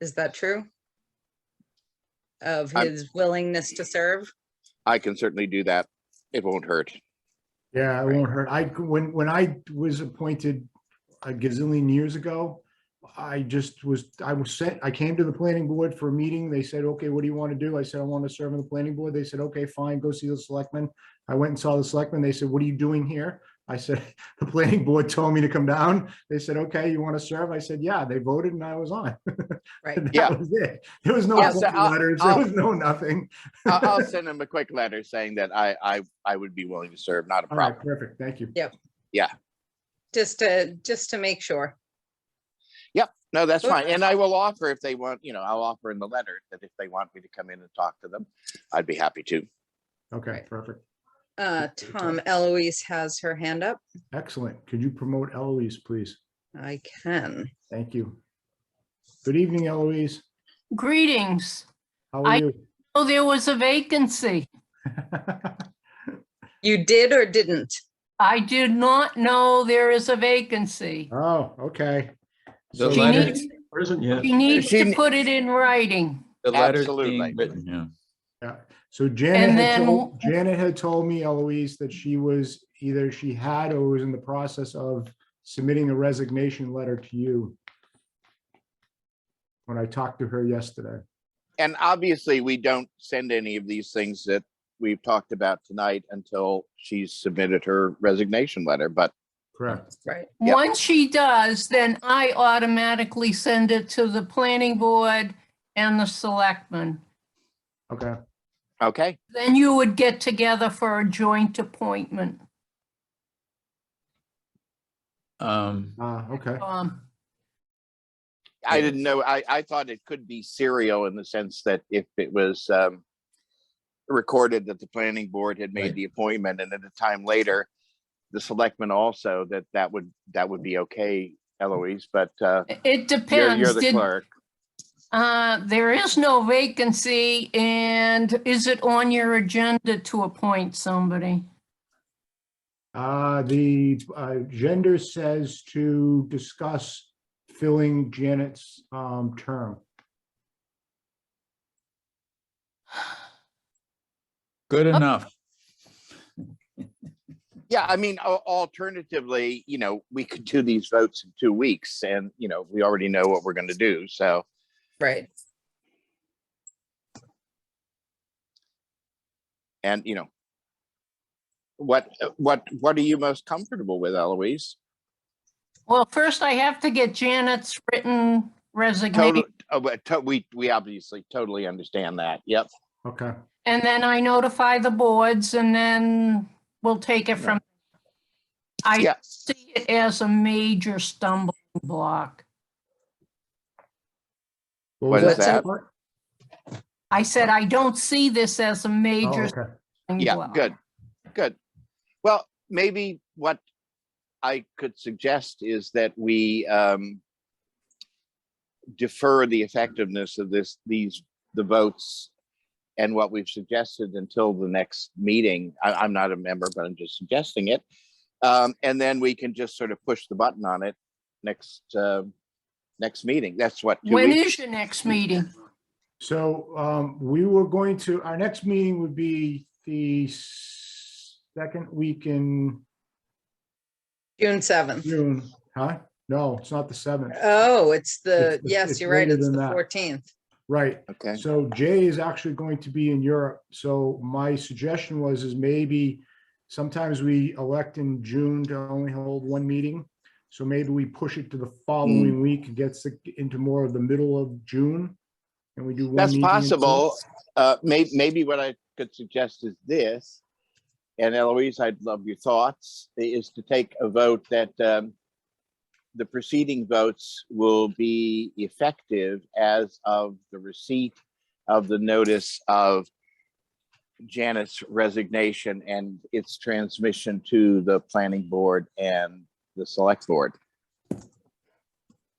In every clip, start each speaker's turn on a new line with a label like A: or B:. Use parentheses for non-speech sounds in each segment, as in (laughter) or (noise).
A: Is that true? Of
B: I'm-
A: his willingness to serve?
B: I can certainly do that. It won't hurt.
C: Yeah, it
B: Right.
C: won't hurt. I, when, when I was appointed a gazillion years ago, I just was, I was sent, I came to the planning board for a meeting. They said, okay, what do you want to do? I said, I want to serve on the planning board. They said, okay, fine, go see the selectmen. I went and saw the selectmen. They said, what are you doing here? I said, (laughs) the planning board told me to come down. They said, okay, you want to serve? I said, yeah, they voted and I was on. (laughs)
A: Right.
C: And
B: Yeah.
C: That was it. There was no
B: Yeah, so
C: appointment
B: I'll-
C: letters, there
B: I'll-
C: was no nothing.
B: I- (laughs) I'll send him a quick letter saying that I, I, I would be willing to serve, not a
C: All right,
B: problem.
C: perfect. Thank you.
A: Just to, just to make sure.
B: No, that's
A: Sure.
B: fine. And I will offer if they want, you know, I'll offer in the letter that if they want me to come in and talk to them, I'd be happy to.
C: Okay,
A: Right.
C: perfect.
A: Uh,
C: Thank you,
A: Tom Eloise has her hand up.
C: Excellent. Could you promote Eloise, please?
A: I can.
C: Thank you. Good evening, Eloise.
D: Greetings.
C: How
D: I-
C: are you? (laughs)
D: Oh, there was a vacancy.
A: You did or didn't?
D: I did not know there is a vacancy.
C: Oh, okay.
E: The
C: So
D: She
E: letter-
D: needs,
E: Prison, yeah.
D: she needs
B: She
D: to
B: ne-
D: put it in writing.
E: The letter's
B: Absolutely.
E: being written, yeah.
C: yeah, So Janet had
D: then-
C: told, Janet had told me, Eloise, that she was either she had or was in the process of submitting a resignation letter to you. When I talked to her yesterday.
B: And obviously, we don't send any of these things that we've talked about tonight until she's submitted her resignation letter, but
C: Correct.
A: Right.
B: Yeah.
D: Once she does, then I automatically send it to the planning board and the selectmen.
C: Okay.
B: okay.
D: Then you would get together for a joint appointment.
E: Um,
C: Uh, okay.
D: Um,
B: I didn't know, I, I thought it could be serial in the sense that if it was, um, recorded that the planning board had made
E: Right.
B: the appointment and at a time later, the selectmen also, that that would, that would be okay, Eloise, but, uh,
D: it
B: you're,
D: depends.
B: you're the
D: Did-
B: clerk.
D: Uh, there is no vacancy and is it on your agenda to appoint somebody?
C: Uh, the gender says to discuss filling Janet's um term.
E: good enough.
B: Yeah, I mean, al- alternatively, you know, we could do these votes in two weeks and, you know, we already know what we're gonna do, so.
A: Right.
B: And, you know, what, what, what are you most comfortable with, Eloise?
D: Well, first I have to get Janet's written
B: Totally, oh,
D: resignation.
B: we, we obviously totally understand that. Yep.
C: Okay.
D: And then I notify the boards and then we'll take it from. I
B: Yeah.
D: see it as a major stumbling block.
C: was
B: What is
A: that?
C: part?
D: I said, I don't see this as a
C: Oh,
D: major.
C: okay.
D: stumbling
B: Yeah,
D: block.
B: good, good. Well, maybe what I could suggest is that we um defer the effectiveness of this, these, the votes and what we've suggested until the next meeting. I, I'm not a member, but I'm just suggesting it. Um, and then we can just sort of push the button on it next, uh, next meeting. That's what, two
D: When
B: weeks?
D: is your next meeting?
C: So um, we were going to, our next meeting would be the s- second week in
A: June seventh.
C: June, huh? No, it's not the seventh,
A: Oh, it's the,
C: It's-
A: yes,
C: it's
A: you're right.
C: later
A: It's
C: than
A: the
C: that.
A: fourteenth.
C: right.
B: okay.
C: So Jay is actually going to be in Europe. So my suggestion was is maybe sometimes we elect in June to only hold one meeting. So maybe we push it to the
B: Hmm.
C: following week, gets it into more of the middle of June. And we do one.
B: That's
C: meeting in June.
B: possible. Uh, may, maybe what I could suggest is this, and Eloise, I'd love your thoughts, i- is to take a vote that, um, the preceding votes will be effective as of the receipt of the notice of Janet's resignation and its transmission to the planning board and the select board.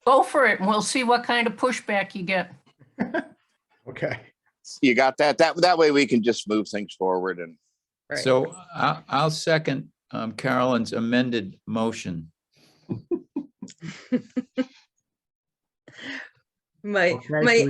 D: Go for it and we'll see what kind of pushback you get.
C: Okay.
B: You got that? That, that way we can just move things forward and
A: Right.
E: So I, I'll second um, Carolyn's amended motion.
F: My,
A: Okay,
F: my
A: so